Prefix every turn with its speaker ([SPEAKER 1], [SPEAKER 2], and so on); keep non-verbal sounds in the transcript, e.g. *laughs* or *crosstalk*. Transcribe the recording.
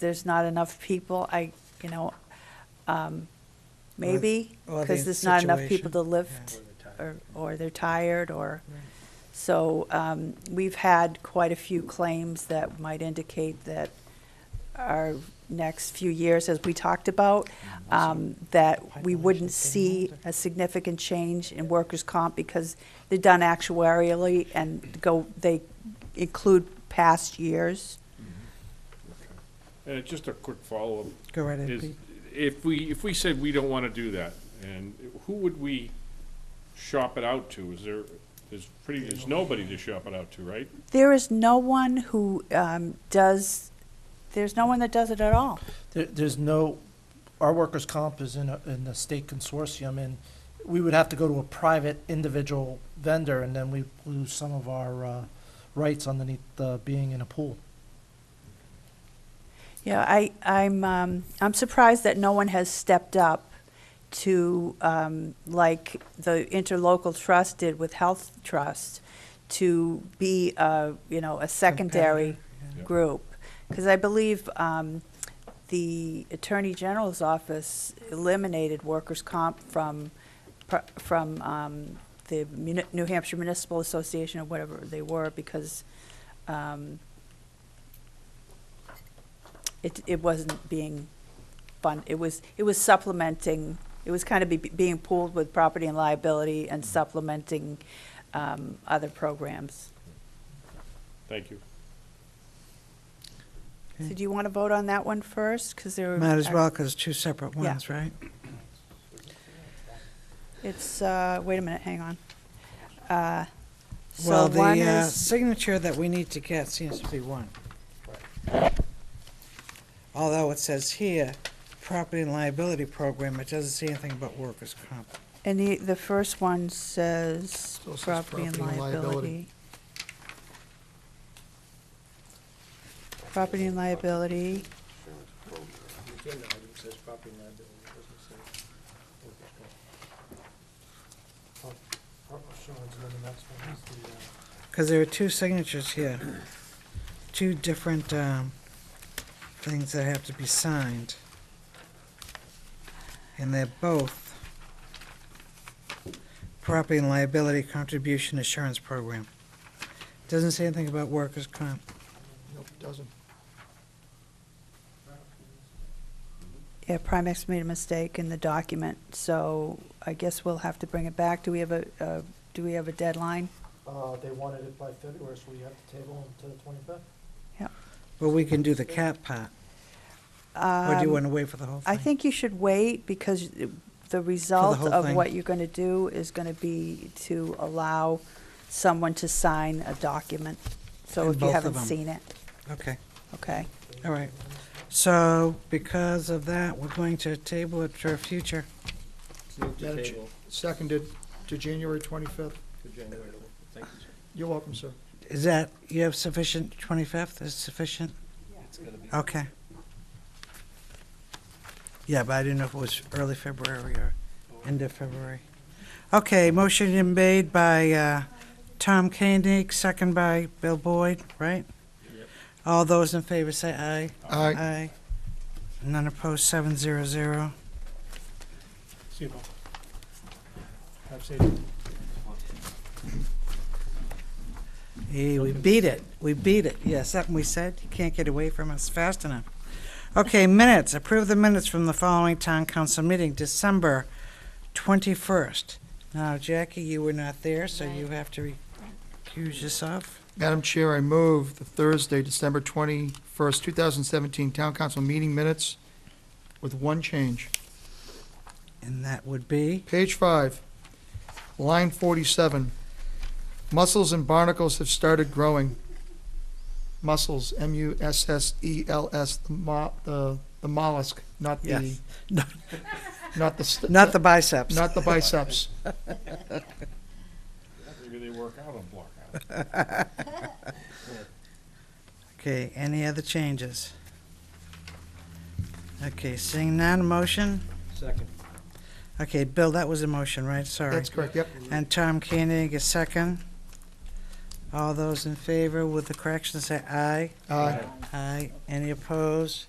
[SPEAKER 1] there's not enough people, I, you know, um, maybe,
[SPEAKER 2] or the
[SPEAKER 1] because there's not enough people
[SPEAKER 2] situation.
[SPEAKER 1] to lift, or, or they're tired, or, so, um, we've had quite a few claims that might indicate that our next few years, as we talked about, um, that we
[SPEAKER 2] Pipeline
[SPEAKER 1] wouldn't
[SPEAKER 2] should
[SPEAKER 1] see a significant change in workers' comp because they're done actuarially and go, they include past years.
[SPEAKER 3] Uh, Just a quick follow-up.
[SPEAKER 2] Go right ahead,
[SPEAKER 3] is,
[SPEAKER 2] Pete.
[SPEAKER 3] if we, if we said we don't want to do that, and who would we shop it out to? Is there, there's pretty, there's nobody to shop it out to, right?
[SPEAKER 1] There is no one who um, does, there's no one that does it at all.
[SPEAKER 4] There, there's no, our workers' comp is in a, in the state consortium, and we would have to go to a private individual vendor, and then we lose some of our, uh, rights underneath, uh, being in a pool.
[SPEAKER 1] Yeah, I, I'm, um, I'm surprised that no one has stepped up to, um, like the interlocal trust did with Health Trust, to be, a, you know, a secondary
[SPEAKER 3] yeah.
[SPEAKER 1] group. Because I believe um, the Attorney General's office eliminated workers' comp from, pr- from um, the Muni- New Hampshire Municipal Association or whatever they were, because um, it, it wasn't being fun, it was, it was supplementing, it was kind of be, being pooled with property and liability and supplementing, um, other programs.
[SPEAKER 3] Thank you.
[SPEAKER 1] So do you want to vote on that one first? Because there were.
[SPEAKER 2] Mm. Might as well, because two separate ones, right?
[SPEAKER 1] It's, uh, wait a minute, hang on. Uh, So
[SPEAKER 2] Well, the
[SPEAKER 1] one
[SPEAKER 2] uh,
[SPEAKER 1] is,
[SPEAKER 2] signature that we need to get seems to be one. Although it says here, property and liability program, it doesn't say anything about workers' comp.
[SPEAKER 1] and the, the first one says
[SPEAKER 5] Still says
[SPEAKER 1] property and
[SPEAKER 5] property and
[SPEAKER 1] liability.
[SPEAKER 5] liability.
[SPEAKER 1] Property and liability.
[SPEAKER 5] uh,
[SPEAKER 2] Because there are two signatures here, two different um, things that have to be signed. And they're both property and liability contribution assurance program. Doesn't say anything about workers' comp.
[SPEAKER 5] Nope, doesn't.
[SPEAKER 1] Yeah, Primex made a mistake in the document, so I guess we'll have to bring it back. Do we have a, uh, do we have a deadline?
[SPEAKER 5] Uh, they wanted it by February, so we have to table until the twenty-fifth.
[SPEAKER 2] But we can do the cat part, or do you
[SPEAKER 1] Um,
[SPEAKER 2] want to wait for the whole thing?
[SPEAKER 1] I think you should wait because the result
[SPEAKER 2] whole
[SPEAKER 1] of
[SPEAKER 2] thing.
[SPEAKER 1] what you're going to do is going to be to allow someone to sign a document. So
[SPEAKER 2] And
[SPEAKER 1] if you
[SPEAKER 2] both of
[SPEAKER 1] haven't
[SPEAKER 2] them.
[SPEAKER 1] seen it,
[SPEAKER 2] Okay,
[SPEAKER 1] okay?
[SPEAKER 2] all right. So because of that, we're going to table it for future.
[SPEAKER 5] Seconded to January twenty-fifth. You're welcome, sir.
[SPEAKER 2] Is that, you have sufficient, 25th is sufficient? Okay. Yeah, but I didn't know if it was early February or end of February. Okay, motion been made by uh, Tom Koenig, second by Bill Boyd, right? All those in favor say aye.
[SPEAKER 5] Aye.
[SPEAKER 2] Aye. None opposed, seven zero zero.
[SPEAKER 5] See you, Bill. Have safety.
[SPEAKER 2] Hey, we beat it. We beat it. Yeah, something we said, you can't get away from us fast enough. Okay, minutes. Approve the minutes from the following town council meeting, December 21st. Now, Jackie, you were not there, so you have to recuse yourself.
[SPEAKER 5] Madam Chair, I move the Thursday, December 21st, 2017 Town Council meeting minutes with one change.
[SPEAKER 2] And that would be, *laughs*
[SPEAKER 5] Page 5, line 47. Mussels and barnacles have started growing. Mussels, M-U-S-S-E-L-S, E the mo- the the mollusk, not the,
[SPEAKER 2] Yes. No.
[SPEAKER 5] not the, st-
[SPEAKER 2] not the biceps.
[SPEAKER 5] not the biceps.
[SPEAKER 3] Maybe they work out on block hours.
[SPEAKER 2] Okay, any other changes? Okay, seeing none, motion? Second. Okay, Bill, that was a motion, right? Sorry.
[SPEAKER 5] That's correct, yep.
[SPEAKER 2] And Tom Koenig is second. All those in favor with the correction say aye.
[SPEAKER 5] Aye.
[SPEAKER 2] Aye. Any opposed?